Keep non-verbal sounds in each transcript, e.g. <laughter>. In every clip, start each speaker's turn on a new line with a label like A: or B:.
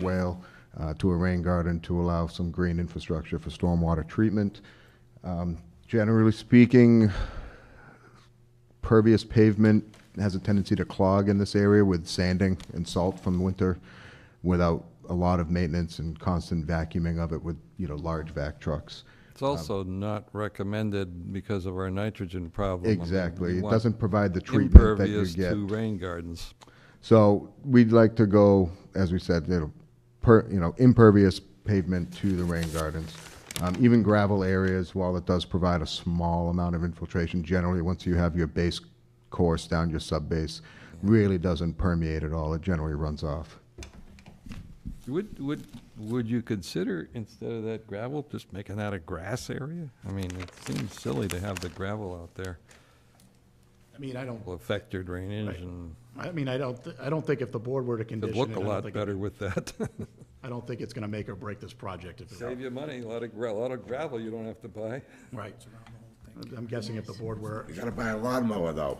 A: well uh, to a rain garden to allow some green infrastructure for stormwater treatment. Um, Generally speaking, pervious pavement has a tendency to clog in this area with sanding and salt from winter without a lot of maintenance and constant vacuuming of it with, you know, large vac trucks.
B: It's also not recommended because of our nitrogen problem. I mean,
A: Exactly.
B: we
A: It
B: want
A: doesn't provide the treatment that you
B: impervious
A: get.
B: to rain gardens.
A: So we'd like to go, as we said, you know, per, you know, impervious pavement to the rain gardens. Um, even gravel areas, while it does provide a small amount of infiltration, generally, once you have your base course down, your sub-base, really doesn't permeate at all. It generally runs off.
B: Would, would, would you consider, instead of that gravel, just making that a grass area? I mean, it seems silly to have the gravel out there.
C: I mean, I don't,
B: Will affect your drainage and
C: I mean, I don't, I don't think if the board were to
B: it'd
C: condition it, I
B: look a
C: don't
B: lot
C: think,
B: better with that. <laughs>
C: I don't think it's gonna make or break this project if,
B: Save you money, a lot of, gra- a lot of gravel you don't have to buy. <laughs>
C: right. I'm guessing if the board were,
D: You gotta buy a lawnmower
C: <laughs>
D: though.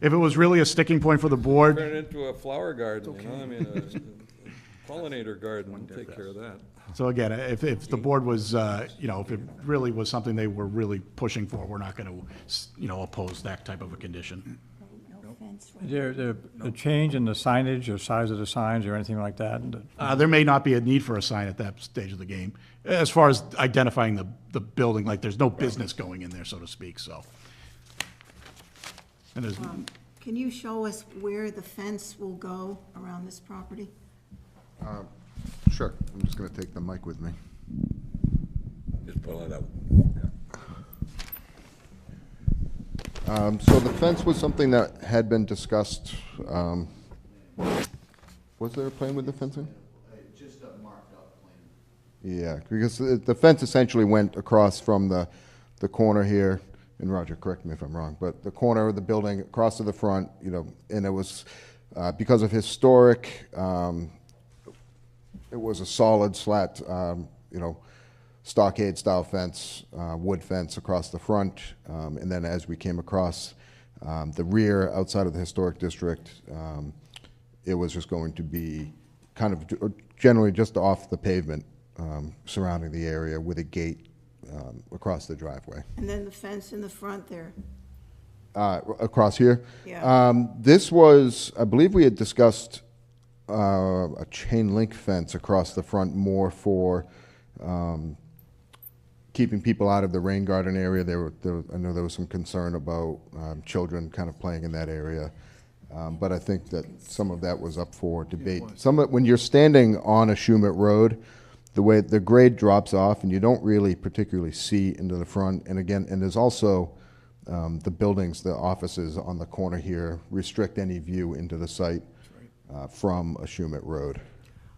C: if it was really a sticking point for the board,
B: Turn it into a flower garden, you know, I mean, a- a pollinator garden, take care of that.
C: so again, if, if the board was, uh, you know, if it really was something they were really pushing for, we're not gonna, s- you know, oppose that type of a condition.
E: No fence,
F: Is there, there a change in the signage or size of the signs or anything like that?
C: Uh, there may not be a need for a sign at that stage of the game, as far as identifying the, the building, like, there's no business going in there, so to speak, so. And there's,
E: Can you show us where the fence will go around this property?
A: Sure. I'm just gonna take the mic with me.
D: Just pull it out.
A: Um, so the fence was something that had been discussed, um, was there a plan with the fencing? Yeah, because the the fence essentially went across from the, the corner here, and Roger, correct me if I'm wrong, but the corner of the building, across to the front, you know, and it was, uh, because of historic, um, it was a solid slat, um, you know, stockade style fence, uh, wood fence across the front. Um, and then as we came across um, the rear outside of the historic district, um, it was just going to be kind of ju- generally just off the pavement um, surrounding the area with a gate um, across the driveway.
E: And then the fence in the front there?
A: Uh, across here?
E: Yeah.
A: Um, this was, I believe we had discussed uh, a chain link fence across the front more for um, keeping people out of the rain garden area. There were, there, I know there was some concern about um, children kind of playing in that area. Um, but I think that some of that was up for debate. Some of, when you're standing on a Shumet Road, the way the grade drops off and you don't really particularly see into the front. And again, and there's also um, the buildings, the offices on the corner here restrict any view into the site uh, from a Shumet Road.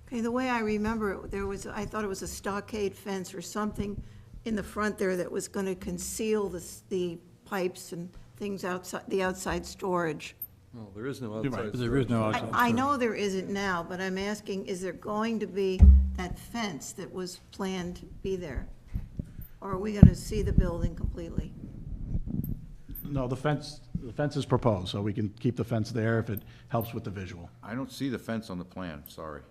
E: Okay, the way I remember it, there was, I thought it was a stockade fence or something in the front there that was going to conceal the, s- the pipes and things outside, the outside storage.
B: Well, there is no
C: You're right.
B: outside.
F: There is no outside.
E: I, I know there isn't now, but I'm asking, is there going to be that fence that was planned to be there? Or are we going to see the building completely?
C: No, the fence, the fence is proposed, so we can keep the fence there if it helps with the visual.
G: I don't see the fence on the plan, sorry.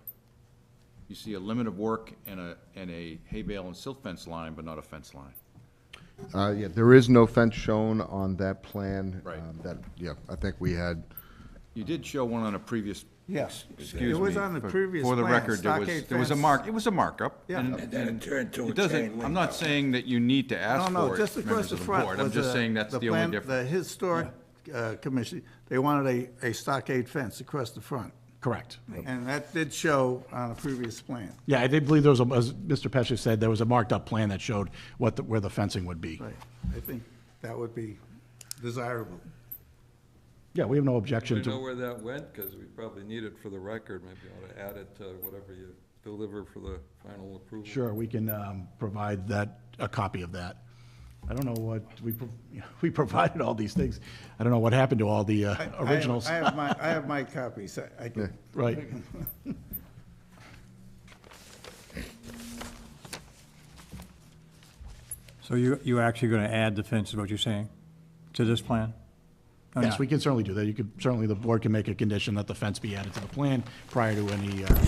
G: You see a limit of work and a, and a hay bale and silt fence line, but not a fence line.
A: Uh, yeah, there is no fence shown on that plan.
G: Right.
A: um, That, yeah, I think we had,
G: You did show one on a previous,
H: Yes.
G: excuse
H: It was
G: me,
H: on the
G: for-
H: previous
G: For the
H: plan,
G: record, there was,
H: stockade
G: there was a
H: fence.
G: mark, it was a markup.
H: Yeah.
G: and-
H: And
D: then it
G: and
D: turned to a
G: it doesn't-
D: chain link
G: I'm not
D: up.
G: saying that you need to ask
H: No, no,
G: for
H: just
G: it,
H: across
G: members
H: the
G: of the
H: front
G: board. I'm
H: was
G: just
H: a-
G: saying that's the
H: plan-
G: only
H: The
G: difference.
H: historic uh, commission, they wanted a, a stockade fence across the front.
C: Correct.
H: And that did show on a previous plan.
C: Yeah, I did believe there was, a- as Mr. Pesci said, there was a marked-up plan that showed what, the- where the fencing would be.
H: Right. I think that would be desirable.
C: Yeah, we have no
B: We
C: objection
B: know
C: to,
B: where that went, because we probably need it for the record, maybe ought to add it to whatever you deliver for the final approval.
C: sure, we can um, provide that, a copy of that. I don't know what, we, pro- <laughs> we provided all these things. I don't know what happened to all the uh,
H: I have-
C: originals.
H: I have my, I have my copies. I- I can.
C: <laughs> Right.
F: So you, you're actually going to add the fence, is what you're saying, to this plan? Or
C: Yes,
F: not?
C: we can certainly do that. You could, certainly the board can make a condition that the fence be added to the plan prior to any uh,